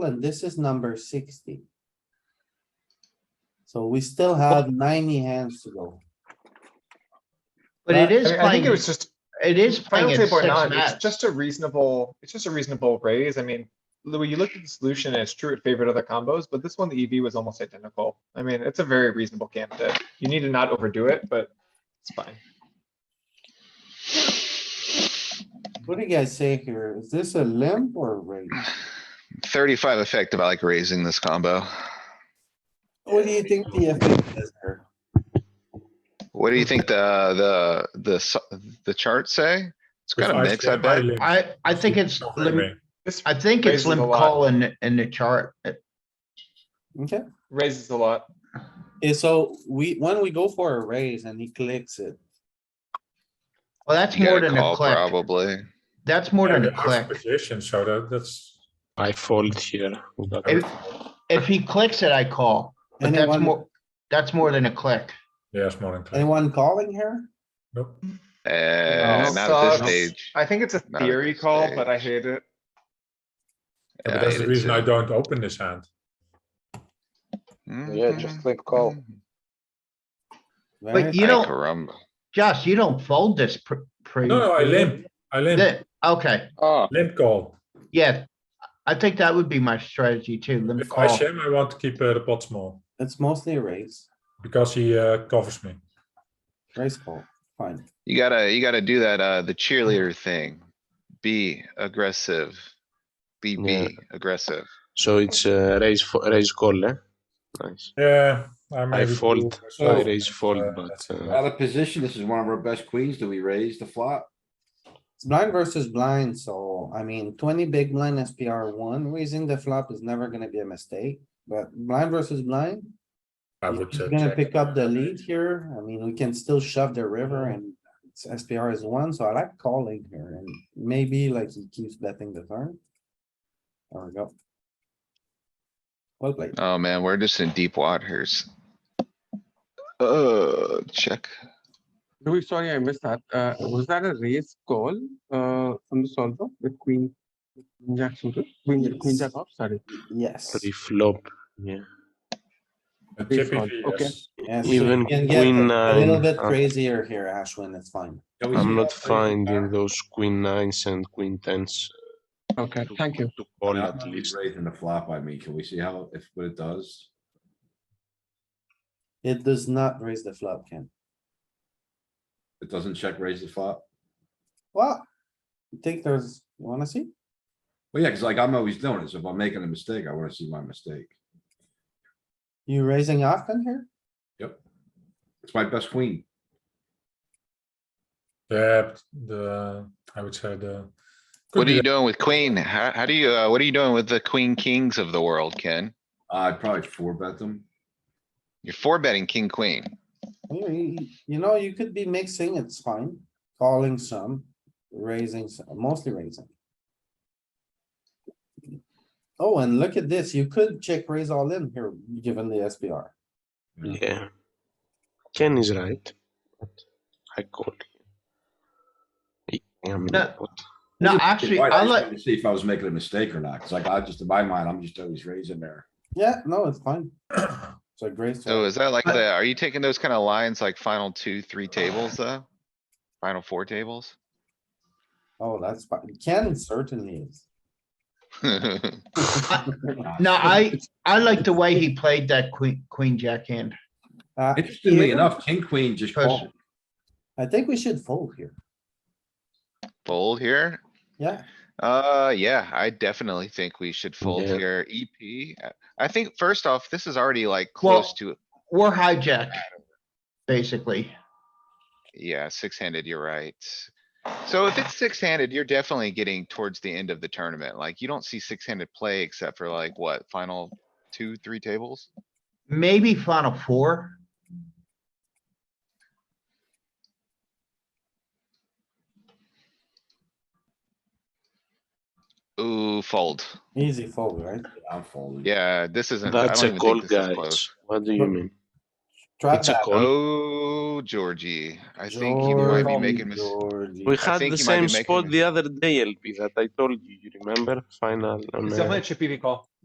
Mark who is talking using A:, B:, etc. A: and this is number sixty. So we still have ninety hands to go.
B: But it is
C: I mean, I think
B: playing,
C: it was just
B: it is playing
C: final
B: at
C: table
B: six
C: or not, it's
B: max.
C: just a reasonable, it's just a reasonable raise. I mean, Louis, you looked at the solution and it's true it favored other combos, but this one, the EV was almost identical. I mean, it's a very reasonable camp that you need to not overdo it, but it's fine.
A: What do you guys say here? Is this a limp or a raise?
D: Thirty-five effective, I like raising this combo.
A: What do you think the effect is here?
D: What do you think the, the, the, s- the chart say? It's got a mix, I bet.
B: I, I think it's, lim-
C: This
B: I think it's
C: Raises a
B: limp
C: lot.
B: call in, in the chart.
A: Okay,
C: raises a lot.
A: and so we, when we go for a raise and he clicks it,
B: Well, that's
D: You
B: more
D: gotta
B: than a
D: call
B: click.
D: probably.
B: That's more than a click.
E: Position, so that, that's.
F: I fold here. We got
B: If,
F: it.
B: if he clicks it, I call, but that's
A: anyone,
B: more, that's more than a click.
E: Yes, more than. click.
A: anyone calling here?
E: Nope.
D: Eh,
C: No.
D: not at this
C: Sucks.
D: stage.
C: I think it's a
D: Not a
C: theory
D: good
C: call, but I
D: stage.
C: hate it.
D: Yeah,
E: Yeah, But
D: I
E: that's
D: hate
E: the
D: it
E: reason I
D: too.
E: don't open this hand.
G: Yeah,
D: Mm-hmm.
G: just limp call.
A: Very-
B: But you don't-
D: Caramba.
B: Josh, you don't fold this pr- pre.
E: No, no, I limp, I limp,
B: Th- Okay,
G: Ah,
E: limp call.
B: yeah. I think that would be my strategy too, limp
E: If I
B: call.
E: shim, I want to keep uh, the pot small
A: It's mostly a raise,
E: because he uh, covers me.
A: raise call, fine.
D: You gotta, you gotta do that, uh, the cheerleader thing. Be aggressive. Be,
F: Yeah.
D: be aggressive.
F: So it's uh, raise fo- raise call, eh? Nice.
E: Yeah. I'm
F: I
E: able to-
F: fold.
E: so-
F: I raise fold,
E: uh,
F: but
E: that's it.
F: uh,
G: out of position. This is one of our best queens. Do we raise the flop?
A: It's blind versus blind, so I mean, twenty big blind SPR one, raising the flop is never gonna be a mistake, but blind versus blind.
E: I
A: If
E: would.
A: he's
E: uh,
A: Gonna
E: check.
A: pick up the lead here. I mean, we can still shove the river and it's SPR is one, so I like calling here and maybe like he keeps betting the turn. There we go. Well played.
D: Oh, man, we're just in deep waters. Uh, check.
H: Louis, sorry, I missed that. Uh, was that a raise call, uh, on the solver with queen, queen jack suited, queen, queen jack off, sorry.
A: Yes.
F: pre flop. Yeah.
E: Uh, Chippy
H: fold,
E: V,
H: okay.
E: yes.
A: yes, so
F: Even
A: you can get
F: queen
A: A little
F: nine.
A: bit
F: uh,
A: crazier here, Ashwin, it's fine.
F: I'm not finding those queen nines and queen tens
H: Okay,
F: to,
H: thank you.
F: to call
G: Not
F: at
G: really
F: least.
G: Raising the flop, I mean, can we see how, if, what it does?
A: It does not raise the flop, Ken.
G: It doesn't check raise the flop?
A: Well, you think there's, you wanna see?
G: Well, yeah, cuz like I'm always doing it. So if I'm making a mistake, I wanna see my mistake.
A: You raising often here?
G: It's my best queen.
E: Yeah, but the, I would say the.
D: What
E: could
D: are
E: be
D: you doing with queen? How, how do you, uh, what are you doing with the queen kings of the world, Ken?
G: I'd probably four bet them.
D: You're four betting king, queen.
A: You- You you know, you could be mixing, it's fine, calling some, raising, some, mostly raising. Oh, and look at this, you could check raise all in here, given the SPR.
F: Yeah. Ken is right. but I call. I am
B: No.
F: not.
B: No,
G: Just-
B: actually,
G: Right,
B: I
G: just
B: like,
G: wanted to See if I was making a mistake or not, cuz like I just, in my mind, I'm just always raising there.
A: Yeah, no, it's fine. So grace.
D: So is that like
B: I-
D: the, are you taking those kind of lines like final two, three tables though? Final four tables?
A: Oh, that's fine, Ken certainly is.
D: It's
B: No, I, I like the way he played that queen, queen jack hand.
A: Uh,
G: Interestingly enough, king, queen just
B: Press-
G: called.
A: I think we should fold here,
D: Fold here?
A: yeah,
D: Uh, yeah, I definitely think we should fold
F: Yeah.
D: here. EP, uh, I think first off, this is already like
B: Well-
D: close to,
B: We're hijacked, basically.
D: yeah, six handed, you're right. So if it's six handed, you're definitely getting towards the end of the tournament. Like you don't see six handed play except for like what, final two, three tables?
B: Maybe final four.
D: Ooh, fold.
A: easy fold, right?
G: I'm folding.
D: Yeah, this isn't. I
F: That's
D: don't
F: a
D: even
F: call,
D: think this is
F: guys.
D: close.
F: What do you mean?
A: Try
F: It's a
A: that.
F: call.
D: Oh, Georgie, I think you might be
A: Georgie,
D: making mis-
A: Georgie.
F: We
D: I
F: had
D: think
F: the
D: you might be
F: same
D: making
F: spot
D: a-
F: the other day, LP, that I told you, you remember? Final. on,
C: It's
F: uh,
C: definitely a chippy V call.